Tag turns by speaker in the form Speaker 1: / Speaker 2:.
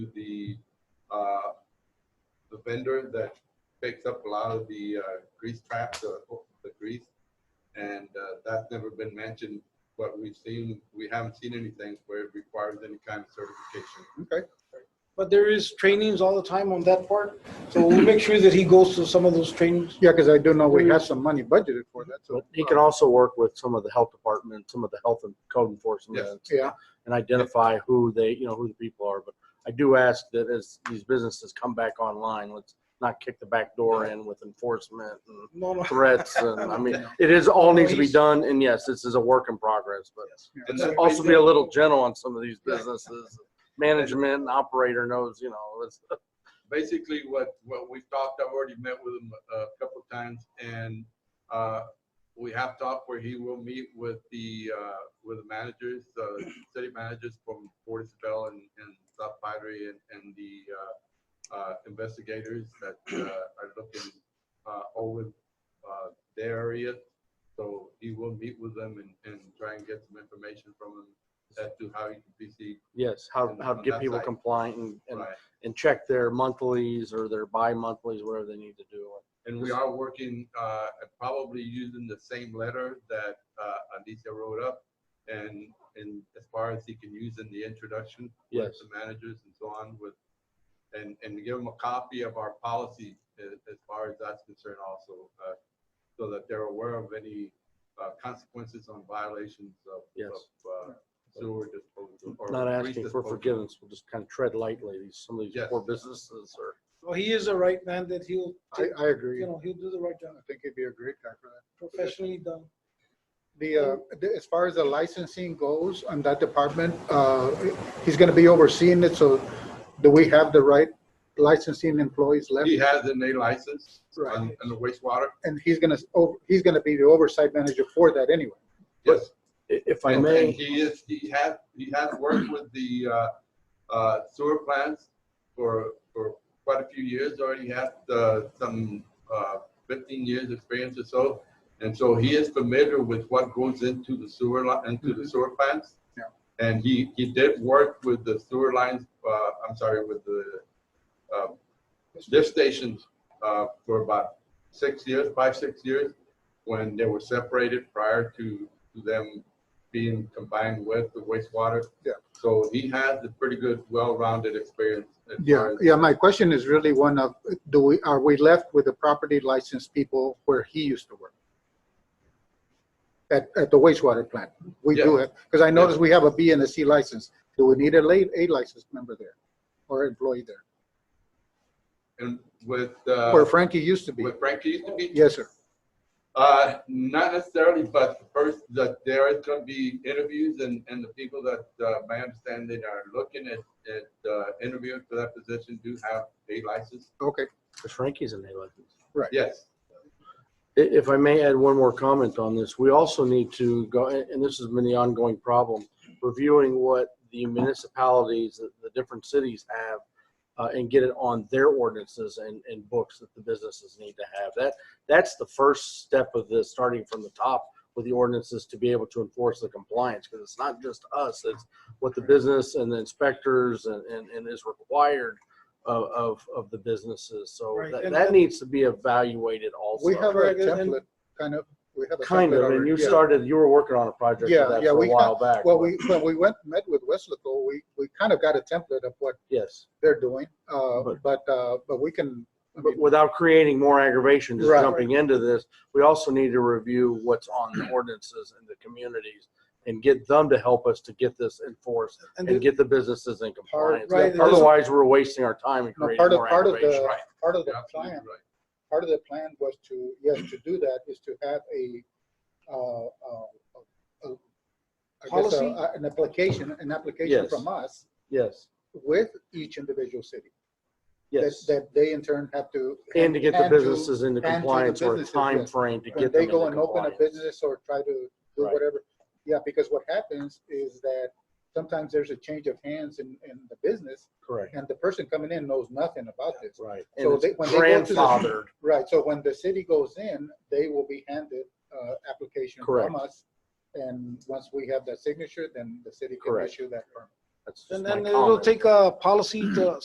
Speaker 1: the, uh, the vendor that picks up a lot of the uh, grease traps, the, the grease. And uh, that's never been mentioned, but we've seen, we haven't seen anything where it requires any kind of certification.
Speaker 2: Okay.
Speaker 3: But there is trainings all the time on that part, so we'll make sure that he goes to some of those trainings.
Speaker 2: Yeah, because I do know we have some money budgeted for that, so.
Speaker 4: But he
Speaker 1: uh,
Speaker 4: can also work with some of the health department, some of the health and code enforcement.
Speaker 1: Yes.
Speaker 4: and-
Speaker 2: Yeah,
Speaker 4: And identify who they, you know, who the people are. But I do ask that as these businesses come back online, let's not kick the back door in with enforcement and
Speaker 3: No, no.
Speaker 4: threats. And I mean, it is, all needs to be done. And yes, this is a work in progress, but
Speaker 1: And
Speaker 4: let's
Speaker 1: that-
Speaker 4: also be a little gentle on some of these businesses. Management and operator knows, you know, let's,
Speaker 1: basically what, what we've talked, I've already met with him uh, a couple of times and, uh, we have talked where he will meet with the, uh, with the managers, uh, city managers from Portisville and, and South Padre and, and the, uh, uh, investigators that, uh, are looking, uh, over, uh, their area. So he will meet with them and, and try and get some information from them as to how he can PC,
Speaker 4: yes, how, how to get people compliant and, and
Speaker 1: right?
Speaker 4: and check their monthlies or their bi-monthlies, whatever they need to do.
Speaker 1: And we are working, uh, at probably using the same letter that, uh, Alicia wrote up. And, and as far as he can use in the introduction. with
Speaker 4: Yes.
Speaker 1: The managers and so on with, and, and give them a copy of our policy as, as far as that's concerned also. uh, So that they're aware of any, uh, consequences on violations of.
Speaker 4: Yes.
Speaker 1: of, uh, Sewer disposal. or
Speaker 4: Not
Speaker 1: waste
Speaker 4: asking for
Speaker 1: disposal.
Speaker 4: forgiveness, we'll just kind of tread lightly, these, some of these
Speaker 1: Yes.
Speaker 4: poor businesses or,
Speaker 3: Well, he is a right man that he'll,
Speaker 2: I, I agree.
Speaker 3: you
Speaker 2: I
Speaker 3: know, he'll do the right job,
Speaker 2: think it'd be a great guy for that.
Speaker 3: professionally done.
Speaker 2: The, uh, the- as far as the licensing goes on that department, uh, he's gonna be overseeing it, so do we have the right licensing employees left?
Speaker 1: He has an A license on,
Speaker 2: Right.
Speaker 1: on the wastewater.
Speaker 2: And he's gonna, oh, he's gonna be the oversight manager for that anyway.
Speaker 1: Yes.
Speaker 4: I- if I
Speaker 1: And- and
Speaker 4: may,
Speaker 1: He is, he has, he has worked with the uh, uh, sewer plants for, for quite a few years, already has uh, some uh, fifteen years experience or so. And so he is familiar with what goes into the sewer, li- into
Speaker 4: Mm-hmm.
Speaker 1: the sewer plants.
Speaker 2: Yeah.
Speaker 1: And he, he did work with the sewer lines, uh, I'm sorry, with the uh, lift stations uh, for about six years, five, six years, when they were separated prior to to them being combined with the wastewater.
Speaker 2: Yeah.
Speaker 1: So he has a pretty good, well-rounded experience. as
Speaker 2: Yeah,
Speaker 1: far as-
Speaker 2: yeah, my question is really one of, do we, are we left with the property licensed people where he used to work? At, at the wastewater plant? We do have, because I noticed we have a B and a C license. Do we need a late, A licensed member there or employee there?
Speaker 1: And with, uh,
Speaker 2: Where Frankie used to be?
Speaker 1: with Frankie used to be,
Speaker 2: Yes, sir.
Speaker 1: uh, not necessarily, but first, that there is gonna be interviews and, and the people that, uh, my understanding are looking at, at, uh, interviewing for that position do have a license.
Speaker 2: Okay,
Speaker 4: because Frankie's in A-License.
Speaker 1: Yes,
Speaker 4: I- If I may add one more comment on this, we also need to go, and this has been the ongoing problem, reviewing what the municipalities, the- the different cities have, uh, and get it on their ordinances and, and books that the businesses need to have. That, that's the first step of this, starting from the top with the ordinances to be able to enforce the compliance, because it's not just us, it's what the business and the inspectors and, and, and is required of, of, of the businesses. So
Speaker 3: Right,
Speaker 4: that,
Speaker 3: and-
Speaker 4: that needs to be evaluated also.
Speaker 2: we have a
Speaker 3: Right, and-
Speaker 2: template, kind of, we have a template.
Speaker 4: Kind of, and
Speaker 2: already,
Speaker 4: you
Speaker 2: yeah.
Speaker 4: started, you were working on a project
Speaker 2: Yeah,
Speaker 4: for that
Speaker 2: yeah,
Speaker 4: for
Speaker 2: we
Speaker 4: a
Speaker 2: got-
Speaker 4: while back.
Speaker 2: Well,
Speaker 4: but-
Speaker 2: we, when we went, met with Westlaco, we, we kind of got a template of what
Speaker 4: Yes,
Speaker 2: they're doing, uh,
Speaker 4: But-
Speaker 2: but, uh, but we can, I mean,
Speaker 4: but without creating more aggravation, just
Speaker 2: Right.
Speaker 4: jumping into this, we also need to review what's on the ordinances in the communities and get them to help us to get this enforced
Speaker 3: And
Speaker 4: and
Speaker 3: the-
Speaker 4: get the businesses in compliance.
Speaker 3: right, and this-
Speaker 4: Otherwise, we're wasting our time and
Speaker 2: No,
Speaker 4: creating
Speaker 2: part of,
Speaker 4: more
Speaker 2: part of
Speaker 4: aggravation.
Speaker 2: the,
Speaker 1: right.
Speaker 2: part of the
Speaker 1: you're absolutely
Speaker 2: plan,
Speaker 1: right.
Speaker 2: part of the plan was to, yes, to do that is to have a, uh, uh, uh, I guess,
Speaker 3: Policy?
Speaker 2: uh, an application, an application
Speaker 4: Yes.
Speaker 2: from us
Speaker 4: Yes,
Speaker 2: with each individual city. that-
Speaker 4: yes.
Speaker 2: That they in turn have to.
Speaker 4: And to get the
Speaker 2: and to-
Speaker 4: businesses into
Speaker 2: and to the
Speaker 4: compliance or a
Speaker 2: businesses,
Speaker 4: time
Speaker 2: yes.
Speaker 4: frame to
Speaker 2: When
Speaker 4: get them
Speaker 2: they
Speaker 4: into
Speaker 2: go and open a
Speaker 4: compliance.
Speaker 2: business or try to do
Speaker 4: Right.
Speaker 2: whatever, yeah, because what happens is that sometimes there's a change of hands in, in the business
Speaker 4: Correct,
Speaker 2: and the person coming in knows nothing about this.
Speaker 4: right.
Speaker 2: So
Speaker 4: And
Speaker 2: they-
Speaker 4: it's
Speaker 2: when they go to the-
Speaker 4: grandfathered,
Speaker 2: Right, so when the city goes in, they will be handed, uh, application
Speaker 4: Correct.
Speaker 2: from us. And once we have that signature, then the city can
Speaker 4: Correct.
Speaker 2: issue that permit.
Speaker 4: That's just
Speaker 3: And
Speaker 4: my
Speaker 3: then it'll
Speaker 4: comment.
Speaker 3: take a policy to